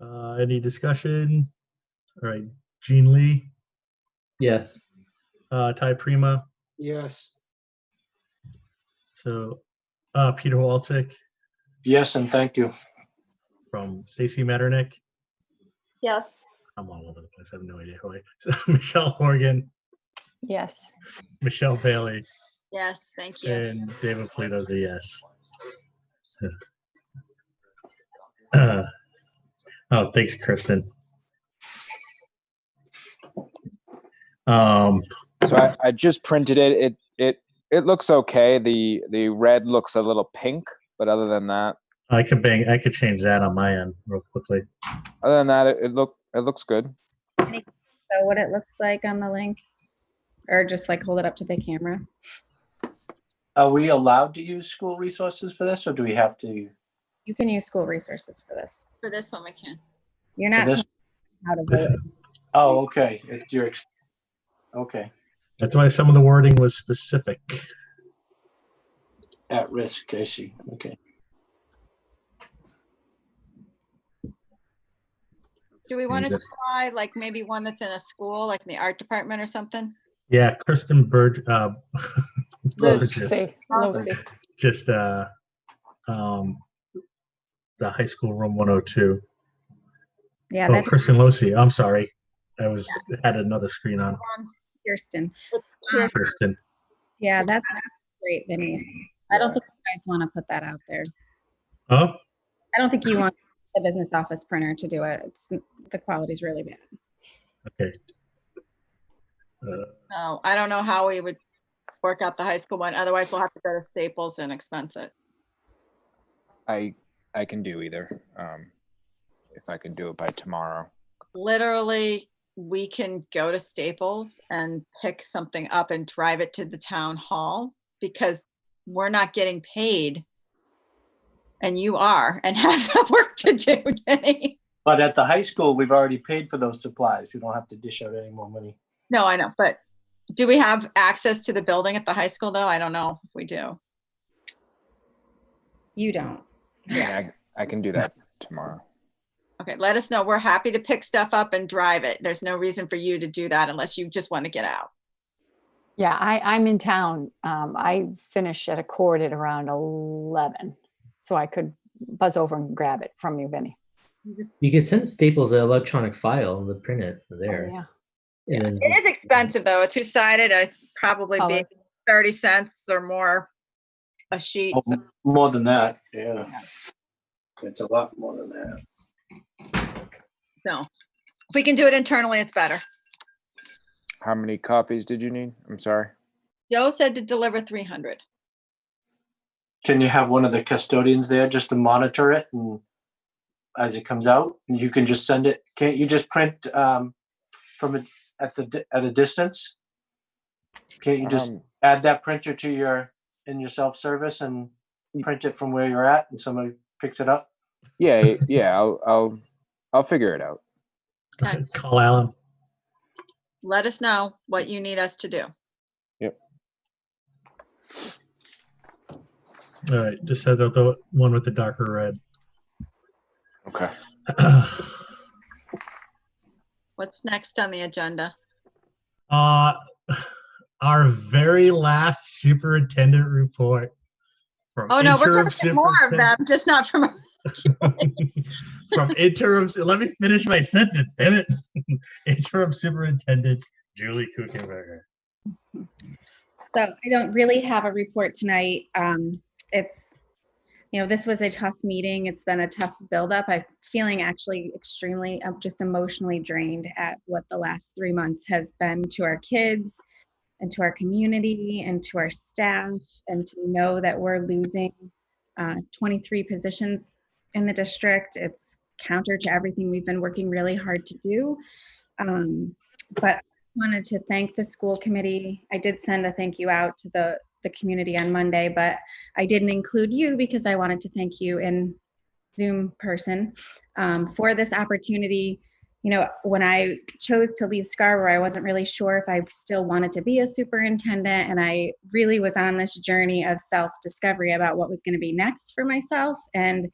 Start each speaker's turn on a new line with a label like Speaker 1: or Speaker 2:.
Speaker 1: Uh, any discussion? All right, Jean Lee,
Speaker 2: Yes.
Speaker 1: uh, Ty Prima,
Speaker 3: Yes.
Speaker 1: so, uh, Peter Walczyk
Speaker 3: Yes, and thank you.
Speaker 1: from Stacy Metternich.
Speaker 4: Yes.
Speaker 1: I'm all over the place. I have no idea who I, so Michelle Horgan,
Speaker 5: Yes.
Speaker 1: Michelle Bailey,
Speaker 4: Yes, thank you.
Speaker 1: and David Polito's a yes. Uh, Oh, thanks, Kristen. Um,
Speaker 6: So I, I just printed it. It it it looks okay. The the red looks a little pink, but other than that,
Speaker 1: I could bang, I could change that on my end real quickly.
Speaker 6: other than that, it, it look it looks good.
Speaker 5: So what it looks like on the link, or just like hold it up to the camera.
Speaker 3: Are we allowed to use school resources for this, or do we have to?
Speaker 5: You can use school resources for this.
Speaker 4: For this one, we can.
Speaker 5: You're not
Speaker 3: this-
Speaker 5: told how to vote.
Speaker 3: Oh, okay. If you're ex- okay,
Speaker 1: That's why some of the wording was specific.
Speaker 3: at risk. I see. Okay.
Speaker 4: Do we want to
Speaker 2: good.
Speaker 4: try like maybe one that's in a school, like in the art department or something?
Speaker 1: Yeah, Kristen Burge, uh,
Speaker 4: Those-
Speaker 1: Burgess
Speaker 5: Safe, low safe.
Speaker 1: just uh, um, the high school room 102.
Speaker 5: Yeah,
Speaker 1: Oh,
Speaker 5: that's
Speaker 1: Kristen Losi. I'm sorry, I was had another screen on.
Speaker 4: One.
Speaker 5: Kirsten.
Speaker 4: Here-
Speaker 1: Kristen,
Speaker 5: Yeah, that's great, Vinny. I don't think you guys want to put that out there.
Speaker 1: oh,
Speaker 5: I don't think you want the business office printer to do it. It's, the quality's really bad.
Speaker 1: okay.
Speaker 4: No, I don't know how we would work out the high school one. Otherwise, we'll have to go to Staples and expense it.
Speaker 6: I I can do either. Um, if I can do it by tomorrow.
Speaker 4: Literally, we can go to Staples and pick something up and drive it to the town hall because we're not getting paid. And you are and have some work to do, Jenny.
Speaker 3: But at the high school, we've already paid for those supplies. We don't have to dish out any more money.
Speaker 4: No, I know, but do we have access to the building at the high school though? I don't know if we do.
Speaker 5: You don't.
Speaker 6: Yeah, I, I can do that tomorrow.
Speaker 4: Okay, let us know. We're happy to pick stuff up and drive it. There's no reason for you to do that unless you just want to get out.
Speaker 7: Yeah, I, I'm in town. Um, I finish at a court at around eleven, so I could buzz over and grab it from you, Vinny.
Speaker 4: You just-
Speaker 2: You can send Staples an electronic file and they'll print it from
Speaker 7: Oh,
Speaker 2: there.
Speaker 7: Yeah,
Speaker 2: And then
Speaker 4: It is expensive though, a two-sided, I probably be
Speaker 7: Color.
Speaker 4: thirty cents or more a sheet.
Speaker 3: Oh,
Speaker 4: so-
Speaker 3: More than that, yeah. It's a lot more than that.
Speaker 4: So if we can do it internally, it's better.
Speaker 6: How many copies did you need? I'm sorry.
Speaker 4: Joe said to deliver three hundred.
Speaker 3: Can you have one of the custodians there just to monitor it and as it comes out? And you can just send it, can't you just print um, from a, at the, di- at a distance? Can't you just
Speaker 6: Um,
Speaker 3: add that printer to your, in your self-service and print it from where you're at and somebody picks it up?
Speaker 6: yeah, yeah. I'll I'll I'll figure it out.
Speaker 4: Okay.
Speaker 1: Call Alan.
Speaker 4: Let us know what you need us to do.
Speaker 1: All right, just said the- the one with the darker red.
Speaker 6: Okay.
Speaker 4: What's next on the agenda?
Speaker 1: Uh, our very last superintendent report. from
Speaker 4: Oh, no, we're
Speaker 1: interim
Speaker 4: gonna get more of
Speaker 1: superintendent-
Speaker 4: them, just not from
Speaker 1: from interim, let me finish my sentence, damn it. Interim Superintendent Julie Kuchenberger.
Speaker 5: So I don't really have a report tonight. Um, it's, you know, this was a tough meeting. It's been a tough buildup. I'm feeling actually extremely, I'm just emotionally drained at what the last three months has been to our kids and to our community and to our staff and to know that we're losing uh, 23 positions in the district. It's counter to everything we've been working really hard to do. Um, but wanted to thank the school committee. I did send a thank you out to the, the community on Monday, but I didn't include you because I wanted to thank you in Zoom person um, for this opportunity. You know, when I chose to leave Scarborough, I wasn't really sure if I still wanted to be a superintendent, and I really was on this journey of self discovery about what was going to be next for myself. And